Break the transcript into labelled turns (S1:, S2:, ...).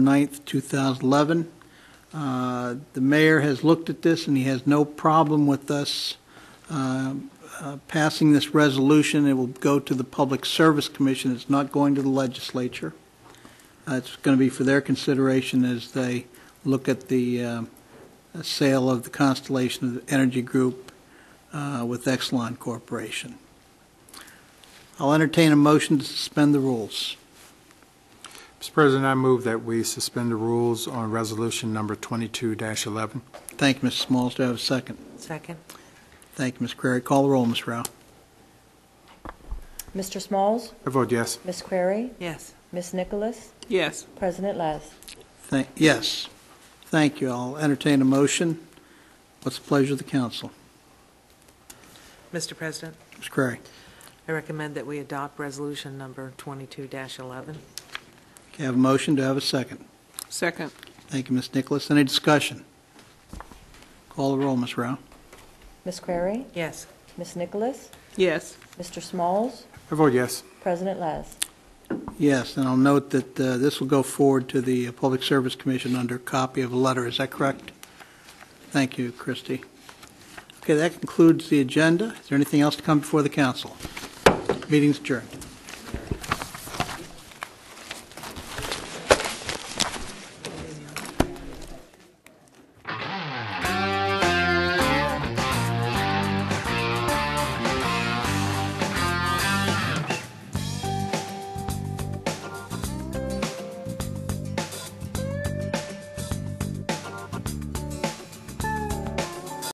S1: 9th, 2011. Uh, The mayor has looked at this, and he has no problem with us um, uh, passing this resolution. It will go to the Public Service Commission. It's not going to the legislature. Uh, It's going to be for their consideration as they look at the um, sale of the Constellation of Energy Group uh, with Exelon Corporation. I'll entertain a motion to suspend the rules.
S2: Mr. President, I move that we suspend the rules on resolution number 22-11.
S1: Thank you, Mrs. Smalls. Do I have a second?
S3: Second.
S1: Thank you, Ms. Crary. Call the roll, Ms. Rao.
S4: Mr. Smalls,
S2: I vote yes.
S4: Miss Query,
S3: Yes.
S4: Miss Nicholas,
S3: Yes.
S4: President Les.
S1: Thank, yes. Thank you. I'll entertain a motion. What's the pleasure of the council?
S3: Mr. President,
S1: Ms. Crary.
S3: I recommend that we adopt resolution number 22-11.
S1: Okay, I have a motion. Do I have a second?
S3: Second.
S1: Thank you, Ms. Nicholas. Any discussion? Call the roll, Ms. Rao.
S4: Miss Query,
S3: Yes.
S4: Miss Nicholas,
S3: Yes.
S4: Mr. Smalls,
S2: I vote yes.
S4: President Les.
S1: Yes, and I'll note that uh, this will go forward to the uh, Public Service Commission under copy of a letter. Is that correct? Thank you, Christie. Okay, that concludes the agenda. Is there anything else to come before the council? Meeting's adjourned.